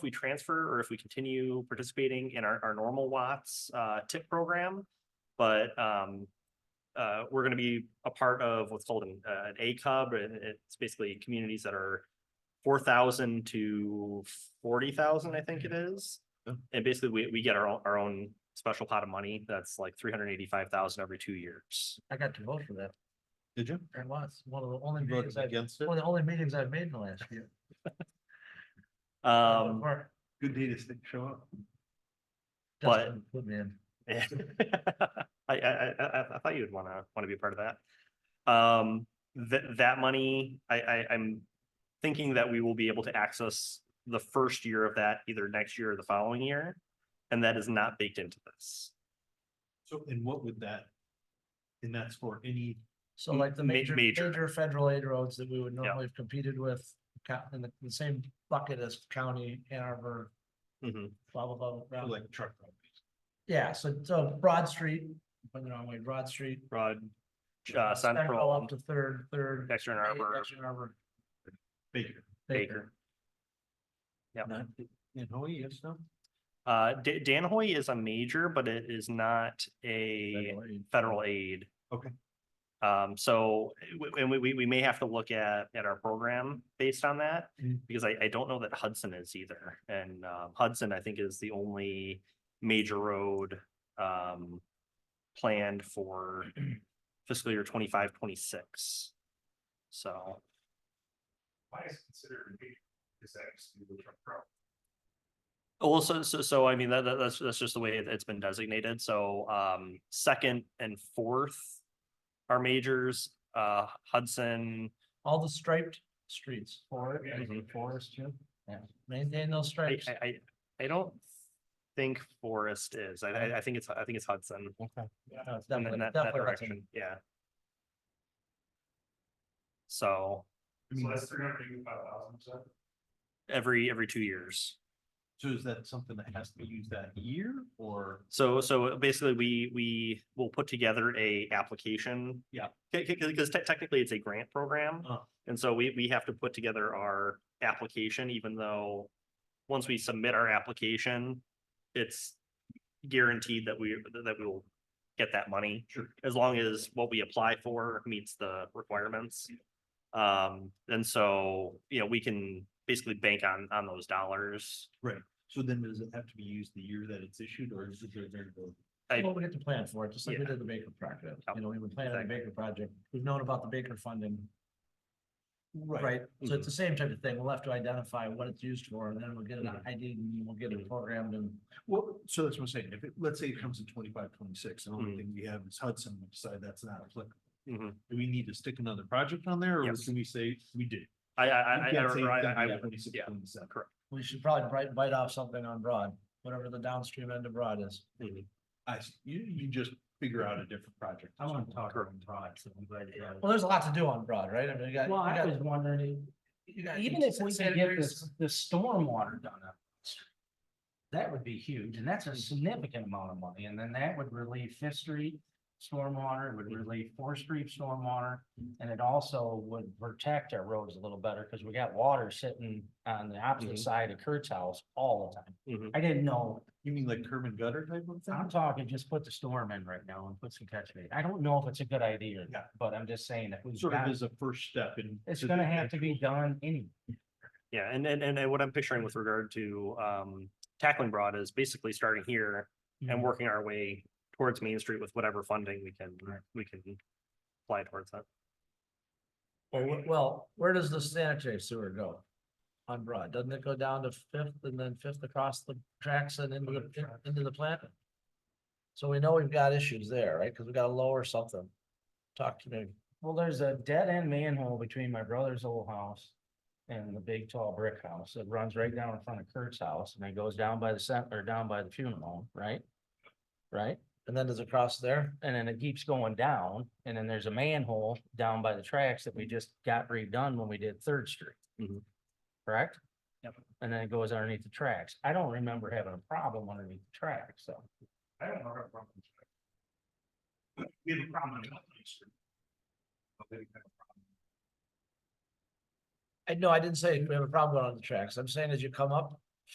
we transfer or if we continue participating in our, our normal Watts, uh, tip program. But, um, uh, we're gonna be a part of what's called an, uh, an A cub, and it's basically communities that are four thousand to forty thousand, I think it is. Yeah. And basically, we, we get our, own- our own special pot of money that's like three hundred eighty-five thousand every two years. I got to vote for that. Did you? It was one of the only You meetings voted I've, against it? one of the only meetings I've made in the last year. Um, Or- Good day to stay- show up. But- Justin Put me in. I, I, I, I, I thought you'd wanna, wanna be a part of that. Um, that, that money, I, I, I'm thinking that we will be able to access the first year of that either next year or the following year. And that is not baked into this. So, and what would that? And that's for any, So like the Ma- major, major. major federal aid roads that we would normally have competed with, co- in the, the same bucket as county, Ann Arbor, Mhm. blah, blah, blah, for blah. like truck. companies. Yeah, so, so Broad Street, went the wrong way, Broad Street. Broad, uh, uh, Central, Up to Third, Third. Dexter and Eight, Arbor, Dexter and Arbor, Baker. Baker. Yep. Not, and oh, yes, no. Uh, Da- Danahoy is a major, but it is not a Federal aid. federal aid. Okay. Um, so, w- and we, we, we may have to look at, at our program based on that, Mm. because I, I don't know that Hudson is either. And, uh, Hudson, I think, is the only major road, um, planned for fiscal year twenty-five, twenty-six. So, Why is considered major? Is that actually the truck route? well, so, so, so, I mean, that, that- that's, that's just the way it- it's been designated. So, um, second and fourth are majors, uh, Hudson, All the striped streets, Ford, Yeah. Forest, yeah, maintain those Mm-hmm. I, stripes. I, I, I don't think Forest is. I, I, I think it's, I think it's Hudson. No, Oh, it's in that- definitely- in that, that definitely Hudson. direction, yeah. So So that's three hundred eighty-five thousand, so. every, every two years. So is that something that has to be used that year or? So, so basically we, we will put together a application. Yeah. Because technically it's a grant program. Uh. Oh. And so we, we have to put together our application, even though once we submit our application, it's guaranteed that we, that we will get that money. Sure. as long as what we apply for meets the requirements. Um, and so, you know, we can basically bank on, on those dollars. So then does it have to be used the year that it's issued or is it there? variable? I- Well, we get to plan for it, just like we Yeah. did the Baker project, Yep. you know, we would plan on the Exactly. Baker project, we've known about the Baker funding, Right. right? So Mm-hmm. it's the same type of thing, we'll have to identify what it's used for, and then we'll get it Mhm. ID'd, and we'll get it programmed, and Well, so that's what I'm saying. If it, let's say it comes in twenty-five, twenty-six, and the Mhm. only thing we have is Hudson, we decide that's not applicable. Mhm. Do we need to stick another project on there or Yes. can we say we did? I, I, You I, I, can't say I- I, exactly I that would- 26, yeah, 27. we should probably bite, bite off something on Broad, whatever the downstream end of Broad is. mhm. I, s- you, you just figure out a different project. I wanna talk Correct. on products, so I'm glad you brought it. Well, there's a lot to do on Broad, right? I mean, you got. Well, you I got- was wondering, you got even if we could get sanitary this, this stormwater done up. That would be huge, and that's a significant amount of money, and then that would relieve Fifth Street stormwater, it would relieve Fourth Street stormwater. And it also would protect our roads a little better, because we got water sitting on the Mhm. Mm-hmm. opposite side of Kurt's house all the Mhm. time. I didn't know, You mean like curb and gutter type of I'm thing? talking, just put the storm in right now and put some catch bait. I don't know if it's a good idea or Yeah. not, but I'm just saying that we've Sort of got, as a first step in. it's to gonna the have to be actual- done anyway. Yeah, and, and, and what I'm picturing with regard to, um, tackling broad is basically starting here and Mm-hmm. Mhm. working our way towards Main Street with whatever funding we can, Right. we can apply towards that. Well, wh- Well, where does the sanitary sewer go? On Broad, doesn't it go down to Fifth and then Fifth across the tracks and into the, into the plant? So we know we've got issues there, right? Cause we gotta lower something. Talk to me. Well, there's a dead end manhole between my brother's old house and the big tall brick house that runs right down in front of Kurt's house and it goes down by the center, or down by the funeral home, right? Right? And then there's a cross there. And then it keeps going down and then there's a manhole down by the tracks that we just got redone when we did Third Street. Mhm. Correct? Yep. And then it goes underneath the tracks. I don't remember having a problem underneath the tracks, so. I don't know. We have a problem. on Elm Street. But they have a problem. I know, I didn't say we have a problem going on the tracks. I'm saying as you come up